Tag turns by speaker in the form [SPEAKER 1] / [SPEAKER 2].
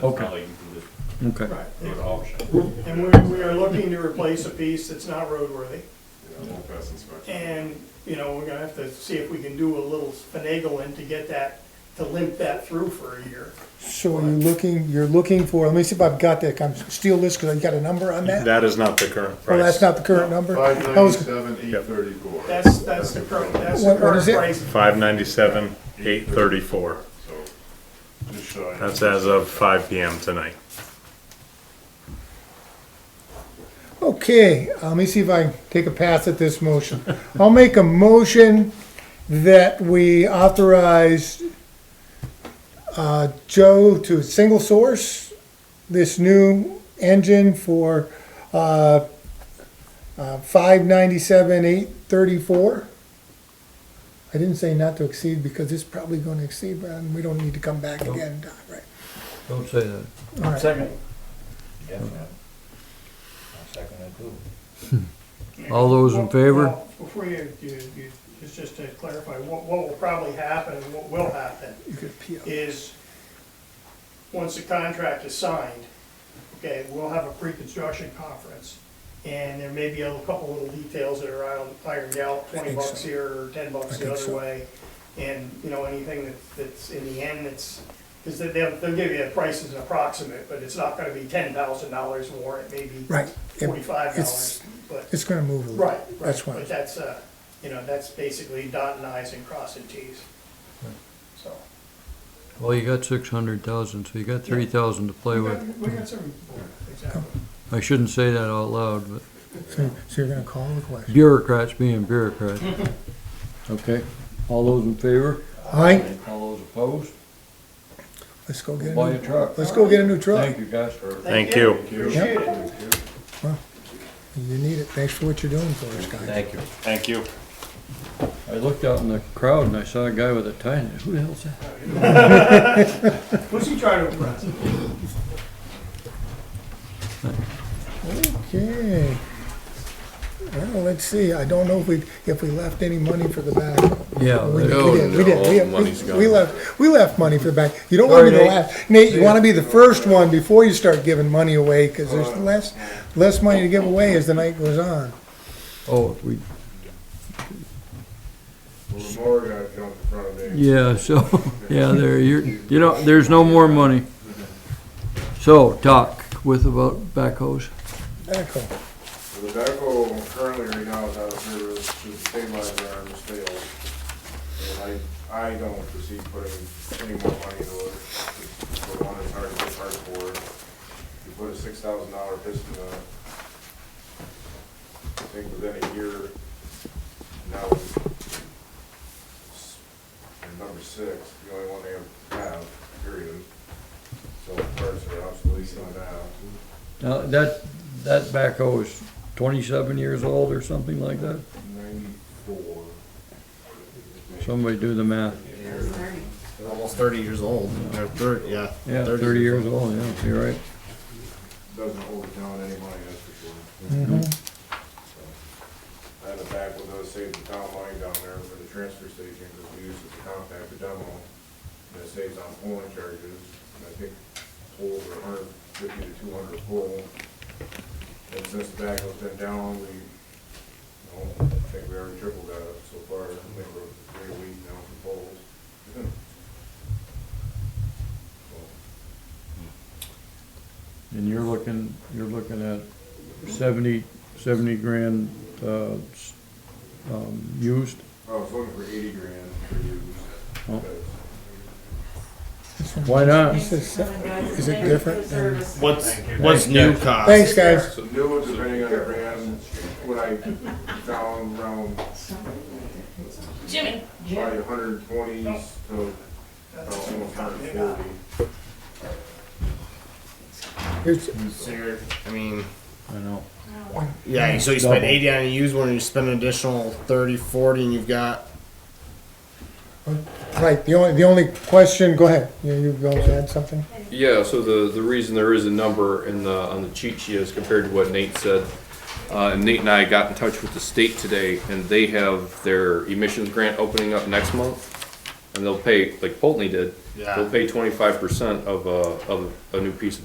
[SPEAKER 1] That's
[SPEAKER 2] Okay.
[SPEAKER 1] not like you can just
[SPEAKER 2] Okay.
[SPEAKER 3] Right.
[SPEAKER 1] go to auction.
[SPEAKER 3] And we, we are looking to replace a piece that's not roadworthy.
[SPEAKER 1] Yeah, won't pass inspection.
[SPEAKER 3] And, you know, we're gonna have to see if we can do a little finagling to get that, to limp that through for a year.
[SPEAKER 4] So you're looking, you're looking for, let me see if I've got that, I'm steal this because I got a number on that?
[SPEAKER 5] That is not the current
[SPEAKER 4] Well,
[SPEAKER 5] price.
[SPEAKER 4] that's not the current number?
[SPEAKER 6] Five
[SPEAKER 4] That was-
[SPEAKER 6] ninety-seven, eight thirty-four.
[SPEAKER 3] That's, that's the current, that's the
[SPEAKER 4] What- what
[SPEAKER 3] current
[SPEAKER 4] is it?
[SPEAKER 3] price.
[SPEAKER 5] Five ninety-seven, eight thirty-four.
[SPEAKER 1] So, just shy.
[SPEAKER 5] That's as of five PM tonight.
[SPEAKER 4] Okay, uh, let me see if I can take a pass at this motion. I'll make a motion that we authorize uh, Joe to single source this new engine for uh, uh, 597, 834. I didn't say not to exceed because it's probably going to exceed, and we don't need to come back again, Don, right?
[SPEAKER 7] Don't say that.
[SPEAKER 4] All right.
[SPEAKER 2] Second.
[SPEAKER 8] Yeah, man. I second it too.
[SPEAKER 7] All those in favor?
[SPEAKER 3] Well, Before you, you, you, just, just to clarify, what, what will probably happen and what will happen
[SPEAKER 4] You could appeal.
[SPEAKER 3] is, once the contract is signed, okay, we'll have a pre-construction conference. And there may be a couple little details that are iron- ironed out, twenty
[SPEAKER 4] think so.
[SPEAKER 3] bucks here or ten bucks the
[SPEAKER 4] think
[SPEAKER 3] other
[SPEAKER 4] so.
[SPEAKER 3] way. And, you know, anything that, that's in the end, it's, because they'll, they'll give you a price as an approximate, but it's not gonna be ten thousand dollars more, it may be
[SPEAKER 4] Right. It-
[SPEAKER 3] forty-five
[SPEAKER 4] it's-
[SPEAKER 3] dollars, but.
[SPEAKER 4] It's going to move a little.
[SPEAKER 3] Right, right.
[SPEAKER 4] That's why.
[SPEAKER 3] But that's, uh, you know, that's basically dotting i's and crossing t's. So.
[SPEAKER 7] Well, you got six hundred thousand, so you got three thousand to play
[SPEAKER 3] We got-
[SPEAKER 7] with.
[SPEAKER 3] we got some, exactly.
[SPEAKER 7] I shouldn't say that out loud, but
[SPEAKER 4] So so you're going to call the question?
[SPEAKER 7] bureaucrats being bureaucrats.
[SPEAKER 2] Okay. All those in favor?
[SPEAKER 4] All right,
[SPEAKER 8] All those opposed,
[SPEAKER 4] let's go get a
[SPEAKER 8] buy
[SPEAKER 4] new,
[SPEAKER 8] a truck.
[SPEAKER 4] let's go get a new truck.
[SPEAKER 8] Thank you guys for.
[SPEAKER 5] Thank you.
[SPEAKER 3] Appreciate it.
[SPEAKER 4] You need it. Thanks for what you're doing for us, guys.
[SPEAKER 8] you.
[SPEAKER 5] Thank you.
[SPEAKER 7] I looked out in the crowd and I saw a guy with a tie, and I said, who the hell's that?
[SPEAKER 3] Who's he trying to impress?
[SPEAKER 4] Okay. Well, let's see. I don't know if we, if we left any money for the back.
[SPEAKER 7] Yeah,
[SPEAKER 4] We
[SPEAKER 7] there-
[SPEAKER 4] we did. We did. We- we- We left, we left money for the back. You don't want to be the
[SPEAKER 7] All right,
[SPEAKER 4] last. Nate, you want to be the first one before you start giving money away because there's less, less money to give away as the night goes on.
[SPEAKER 7] oh, we,
[SPEAKER 6] Well, the more guy comes in front of me.
[SPEAKER 7] yeah, so, yeah, there, you're, you know, there's no more money. So, Doc, with about backhoes,
[SPEAKER 4] Backhoe.
[SPEAKER 6] The backhoe currently right now is out of service to the state library in Stale. And I, I don't foresee putting any more money into it. It's- For one, it's hard to get parts for. You put a six thousand dollar piston on it. I think within a year, now it's it's number six, the only one they have, period. So parts are obsolete on that.
[SPEAKER 7] now, that, that backhoe is twenty-seven years old or something like that?
[SPEAKER 6] Ninety-four.
[SPEAKER 7] Somebody do the math.
[SPEAKER 9] Almost thirty years old, or thirty, yeah.
[SPEAKER 7] Yeah, thirty years old, yeah, you're right.
[SPEAKER 6] Doesn't hold the town any money, that's for sure. So, I had a back with us, saved the town money down there for the transfer station, because we use it to compact the demo. And it saves on pulling charges, and I think tolls are hundred fifty to two hundred pull. And since the back has been down, we, I don't think we already tripled that up so far, I think we're three a week now for polls.
[SPEAKER 7] And you're looking, you're looking at seventy, seventy grand, uh, s- um, used?
[SPEAKER 6] I was looking for eighty grand for
[SPEAKER 7] Oh.
[SPEAKER 6] you.
[SPEAKER 7] Why not?
[SPEAKER 4] This is- Is it um, different? than-
[SPEAKER 9] What's, what's new cost?
[SPEAKER 4] Thanks, guys.
[SPEAKER 6] So new ones, depending on the brand, what I found around
[SPEAKER 10] Jimmy.
[SPEAKER 6] probably hundred twenties to about almost hundred forty.
[SPEAKER 4] Here's-
[SPEAKER 9] So you're, I mean,
[SPEAKER 7] I know.
[SPEAKER 9] yeah, so you spend
[SPEAKER 7] Double.
[SPEAKER 9] eighty on a used one, and you spend an additional thirty, forty, and you've got,
[SPEAKER 4] Right, the only, the only question, go ahead. You, you going to add something?
[SPEAKER 2] Yeah, so the, the reason there is a number in the, on the cheat sheet is compared to what Nate said. Uh, and Nate and I got in touch with the state today and they have their emissions grant opening up next month. and they'll pay, like Pulteney did,
[SPEAKER 8] Yeah.
[SPEAKER 2] they'll pay twenty-five percent uh, of a, of a new piece of